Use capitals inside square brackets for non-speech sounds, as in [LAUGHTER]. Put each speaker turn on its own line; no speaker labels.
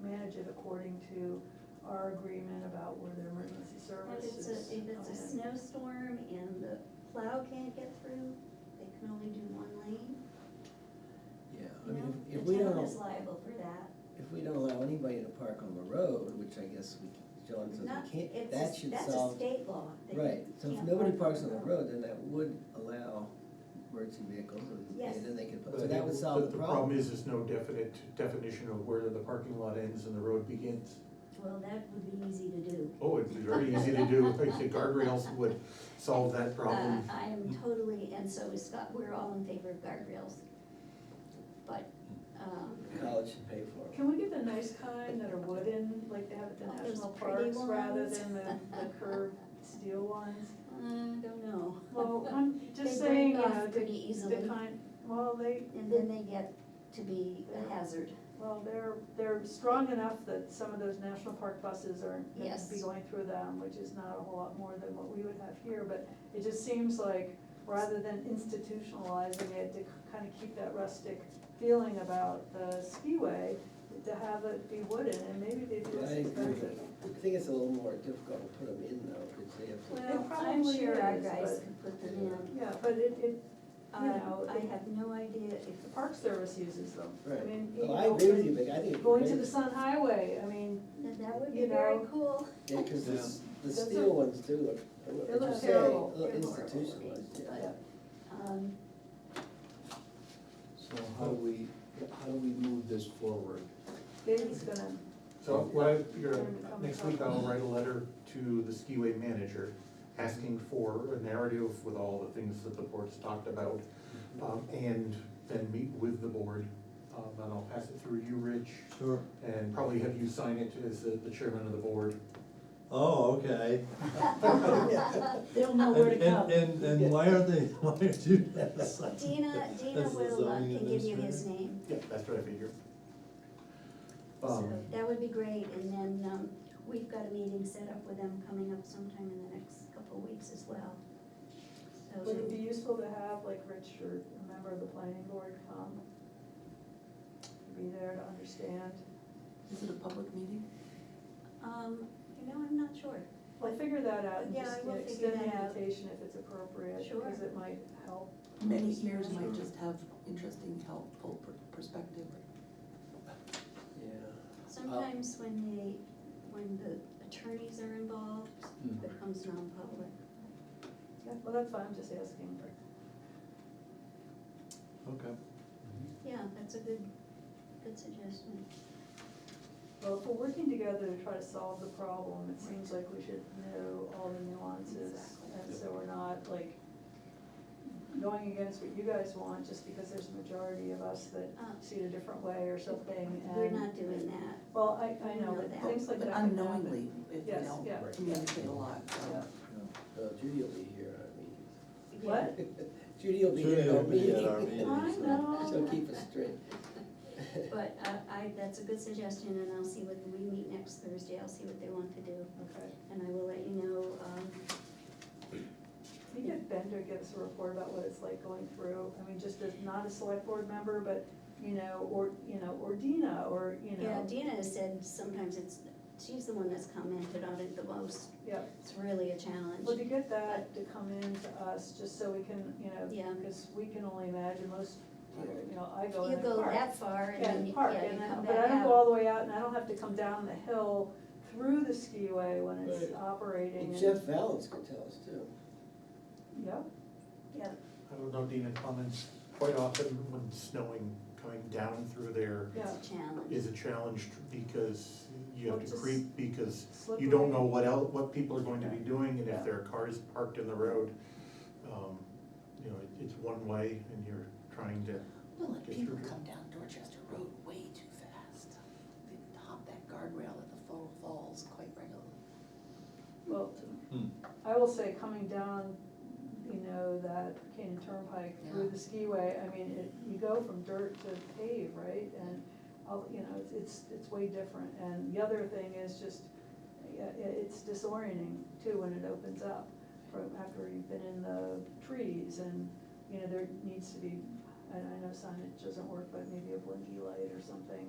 manage it according to our agreement about where their emergency
If it's
services.
a, if it's
come
a
in.
snowstorm and the plow can't get through, they can only do one lane,
Yeah, I
you know?
mean, if if we
The
don't,
town is liable for that.
if we don't allow anybody to park on the road, which I guess we, John says
Not-
we can't,
it's a-
that should
That's a
solve.
state law. They
Right, so if
can't
nobody
park
parks on the road, then that would allow emergency vehicles and,
Yes.
and then they could,
But
so
I
that
think
would
that
solve the problem.
is, there's no definite definition of where the parking lot ends and the road begins.
Well, that would be easy to do.
Oh, it'd be very easy to do, like the guardrails would solve that problem.
Uh, I am totally, and so is Scott, we're all in favor of guardrails. But, um,
College should pay for it.
Can we get the nice kind that are wooden, like they have at the
Oh, those
national
pretty
parks, rather
ones.
than the, the curved steel ones?
I don't know. [LAUGHS]
Well, I'm just
They
saying, you
break off
know, the,
Pretty easily,
the kind, well, they,
and then they get to be a hazard.
well, they're, they're strong enough that some of those national park buses are,
Yes.
could be going through them, which is not a whole lot more than what we would have here, but it just seems like, rather than institutionalizing it, to kind of keep that rustic feeling about the skiway, to have it be wooden, and maybe they'd be
I
less
agree.
expensive.
I think it's a little more difficult to put them in though, because they have to.
Well,
Well,
I'm
I'm sure our
sure it is,
guys
but-
could put them in.
Yeah, but it, it, you know,
Um, I
it-
have no idea if,
the Park Service uses them. I
Right.
mean,
Oh,
you
I
know,
agree with you, but I think. it'd be
Going to
great.
the Sun Highway, I mean,
that- that would be
You
very
know,
cool.
Yeah, cause the, s- the
Those
steel
are-
ones do look, I don't know
They
what
look
you say,
uh,
terrible.
look
They're horrible
institutionalized,
looking,
yeah.
but, um,
So how do we, how do we move this forward?
David's gonna,
So what I figure, next week I'll write a letter to the skiway manager asking for a narrative with all the things that the board's talked about. Um, and then meet with the board, um, and I'll pass it through you, Rich,
Sure.
and probably have you sign it as the the chairman of the board.
Oh, okay.
They'll know
And, and, and- and why are they, [LAUGHS] why are you?
Dina, Dina
That's the
will, uh,
zoning
can give you his
administrator.
name,
Yeah, that's what I figure.
so
Um,
that would be great, and then, um, we've got a meeting set up with them coming up sometime in the next couple of weeks as well. So
would it be
they-
useful to have like Rich or a member of the planning board come? Be there to understand.
Is it a public meeting?
Um, you know, I'm not sure,
Well, figure that out and
Yeah,
just
I
you know,
will figure
extend the
that out.
invitation if it's appropriate, because
Sure.
it might help.
Many ears
Sure.
might just have interesting, helpful per- perspective.
Yeah.
sometimes when they, when the attorneys are involved,
Hmm.
Mhm.
it becomes non-public.
Yeah, well, that's fine, I'm just asking.
Okay.
Yeah, that's a good, good suggestion.
Well, if we're working together to try to solve the problem, it seems like we should know all the nuances.
Exactly.
And so we're not like going against what you guys want, just because there's a majority of us that
Uh,
see it a different way or something,
We're
and,
not doing that.
well, I, I know,
Know
but
that.
things like that
But
can happen.
unknowingly, if we
Yes,
don't
yeah.
communicate a lot,
Yeah.
so.
Uh, Judy will be here at
What?
our meeting. Judy will be here
Judy
at
will
our
be
meeting.
at our meeting.
I
so-
know.
[LAUGHS] She'll keep us straight.
But I, I, that's a good suggestion, and I'll see what, we meet next Thursday, I'll see what they want to do,
Okay.
and I will let you know, um,
Can you get Ben to give us a report about what it's like going through, I mean, just as, not a select board member, but, you know, or, you know, or Dina, or, you
yeah,
know,
Dina has said sometimes it's, she's the one that's commented on it the most,
yeah.
it's really a challenge.
Well, to get that to come in to us, just so we can, you know,
Yeah.
because we can only imagine most, you know, I go in
You
the
go
park.
that far, and
Yeah,
then, you-
park,
yeah, you
and then-
come
But I
back
don't go
out.
all the way out, and I don't have to come down the hill through the skiway when it's
Right.
operating.
And
and-
Jeff Valens could tell us too.
Yeah,
Yeah,
I don't know, Dina comments, quite often when snowing, coming down through there
yeah.
it's a challenge.
is a challenge because you have
Well,
to
just
creep because
slippery.
you don't know what el, what people are going to be doing, and if their car is parked in the road, um, you know, it- it's one way, and you're trying to,
Well, and
Get
people
through.
come down Dorchester Road way too fast. They hop that guardrail at the Fall Falls quite regularly.
Well,
Hmm.
I will say, coming down, you know, that Canaan Turnpike through
Yeah.
the skiway, I mean, it, you go from dirt to pave, right? And, I'll- you know, it's- it's, it's way different, and the other thing is just, yeah, i- it's disorienting too when it opens up, from after you've been in the trees, and, you know, there needs to be, and I know signage doesn't work, but maybe a blinky light or something,